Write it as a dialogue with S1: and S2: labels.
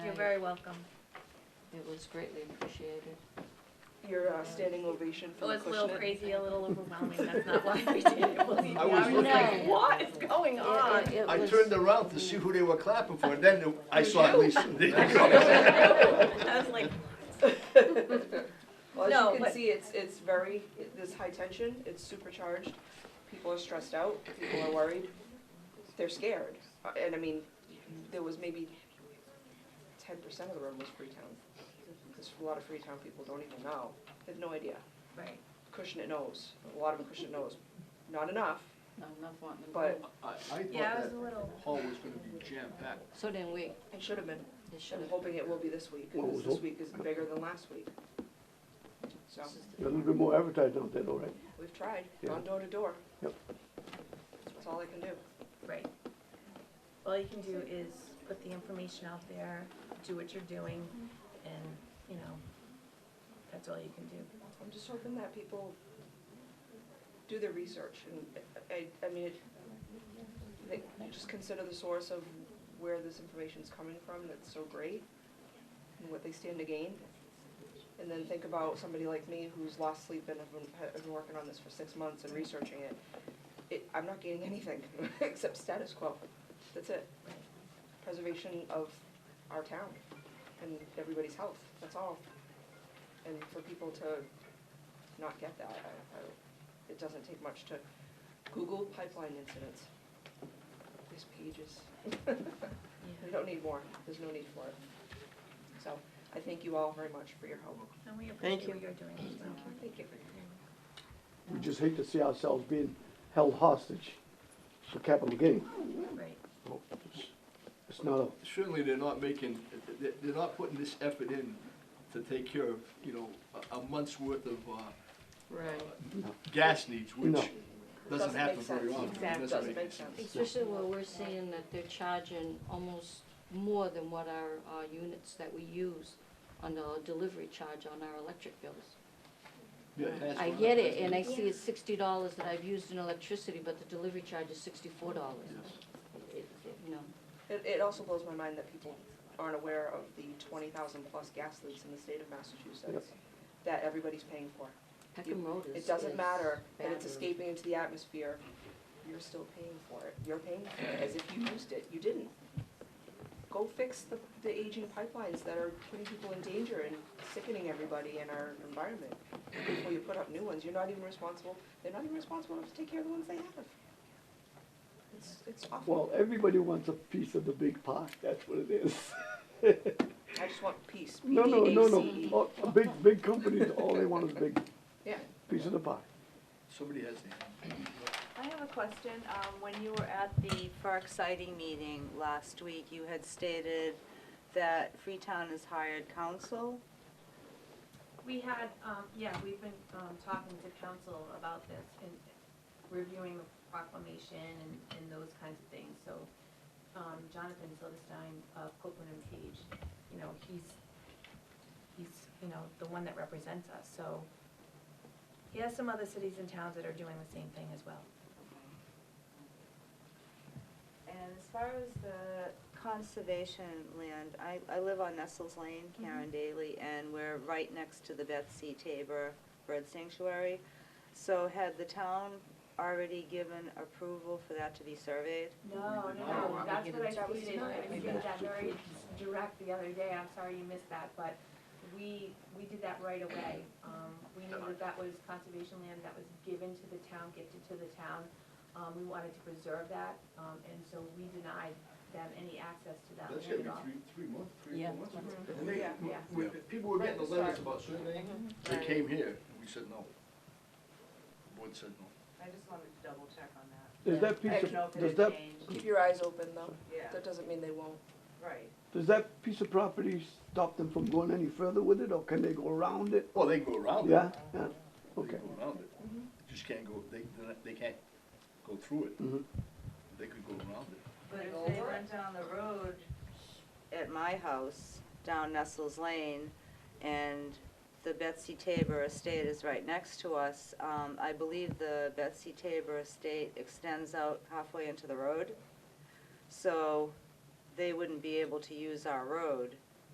S1: You're very welcome.
S2: It was greatly appreciated.
S3: Your uh, standing ovation
S1: It
S3: for the
S1: was Oh, a little
S3: Cushnet.
S1: crazy, a little overwhelming, that's not why we did it, believe me.
S4: I
S1: I
S4: was
S1: was like,
S2: looking-
S1: what is going on?
S2: It- it
S4: I
S2: was-
S4: turned around to see who they were clapping for, and then I saw at least.
S1: I was like,
S3: Well,
S1: No,
S3: as
S1: but-
S3: you can see, it's, it's very, this high tension, it's supercharged, people are stressed out, people are worried, they're scared. Uh, And I mean, there was maybe ten percent of the room was Freetown. Because a lot of Freetown people don't even know, they have no idea.
S1: right,
S3: Cushnet knows, a lot of them Cushnet knows, not enough,
S2: No, I'm not wanting to
S3: but
S2: go.
S4: I, I thought
S1: yeah, I
S4: that
S1: was a little,
S4: hall was gonna be jam-packed.
S2: So then we,
S3: it should have been.
S2: it should
S3: I'm
S2: have,
S3: hoping it will be this week,
S5: Well, it
S3: because
S5: was
S3: this
S5: op-
S3: week is bigger than last week. So,
S5: A little bit more advertising out there, though, right?
S3: we've tried,
S5: Yeah.
S3: gone door to door.
S5: Yep.
S3: That's all I can do.
S1: right. All you can do is put the information out there, do what you're doing, and, you know, that's all you can do.
S3: I'm just hoping that people do their research and, I, I mean, it, they just consider the source of where this information's coming from that's so great and what they stand to gain. And then think about somebody like me who's lost sleep and have been, have been working on this for six months and researching it. It, I'm not gaining anything except status quo. That's it. Preservation of our town and everybody's health, that's all. And for people to not get that. I, I, it doesn't take much to Google pipeline incidents. There's pages.
S1: Yeah.
S3: We don't need more. There's no need for it. So I thank you all very much for your help.
S1: And we
S2: Thank
S1: appreciate
S2: you.
S1: what you're doing as well.
S3: Thank you.
S5: We just hate to see ourselves being held hostage for capital gain. Oh,
S1: Right,
S5: It's not a,
S4: Certainly, they're not making, they're, they're not putting this effort in to take care of, you know, a, a month's worth of, uh,
S2: right.
S4: gas needs,
S5: No.
S4: which
S3: Doesn't
S4: doesn't happen
S3: make
S4: very
S3: sense.
S4: often.
S3: Exactly. Doesn't make sense.
S2: Especially when we're seeing that they're charging almost more than what our, our units that we use on the delivery charge on our electric bills.
S4: Yeah, it has
S2: I
S4: gone
S2: get
S4: up,
S2: it, and I
S4: hasn't
S2: see it's sixty dollars that I've used in electricity, but the delivery charge is sixty-four dollars.
S4: Yes.
S2: No,
S3: It, it also blows my mind that people aren't aware of the twenty thousand plus gas leaks in the state of Massachusetts that everybody's paying for.
S2: Peckham Road is.
S3: It doesn't
S2: is
S3: matter that it's
S2: bad.
S3: escaping into the atmosphere, you're still paying for it. You're paying for it as if you used it. You didn't. Go fix the, the aging pipelines that are putting people in danger and sickening everybody in our environment. Before you put up new ones, you're not even responsible, they're not even responsible enough to take care of the ones they have. It's, it's
S5: well,
S3: awful.
S5: everybody wants a piece of the big pie, that's what it is.
S3: I just want peace.
S5: No, no, no,
S3: P E A C E.
S5: no, Oh, big, big companies, all they want is a big
S3: Yeah.
S5: piece of the pie.
S4: it? Somebody has the,
S6: I have a question. Um, When you were at the Park Siting meeting last week, you had stated that Freetown has hired counsel.
S1: We had, um, yeah, we've been, um, talking to council about this and reviewing the proclamation and, and those kinds of things, so, um, Jonathan Silverstein of Copeland and Page, you know, he's, he's, you know, the one that represents us, so he has some other cities and towns that are doing the same thing as well.
S6: And as far as the conservation land, I, I live on Nestles Lane, Karen Daly, and we're right next to the Betsy Tabor Bird Sanctuary. So had the town already given approval for that to be surveyed?
S1: No, no, no, that's what I stated, I
S5: Maybe
S1: stated that
S5: that's
S1: very
S5: different.
S1: direct the other day, I'm sorry you missed that, but we, we did that right away. Um, we knew that that was conservation land that was given to the town, gifted to the town, um, we wanted to preserve that, um, and so we denied them any access to that
S4: that's
S1: land at
S4: gotta be
S1: all.
S4: three, three months, three,
S2: Yeah.
S4: four months.
S2: Mhm.
S4: And they-
S3: Yeah.
S1: Yeah.
S4: when people were getting the letters about surveying, they
S6: Right.
S4: came here, and we said no. The Board said no.
S6: I just wanted to double check on that.
S5: Does that
S3: I
S5: piece
S3: don't know
S5: of, does that,
S3: Keep your eyes open though,
S6: Yeah,
S3: that doesn't mean they won't.
S6: right.
S5: does that piece of property stop them from going any further with it, or can they go around it?
S4: Well, they can go around it.
S5: Yeah, yeah,
S4: They
S5: okay.
S4: can go around it. Just can't go, they, they're not- they can't go through it.
S5: Mhm.
S4: They could go around it.
S6: But if they went down the road at my house, down Nestles Lane, and the Betsy Tabor Estate is right next to us, um, I believe the Betsy Tabor Estate extends out halfway into the road. So they wouldn't be able to use our road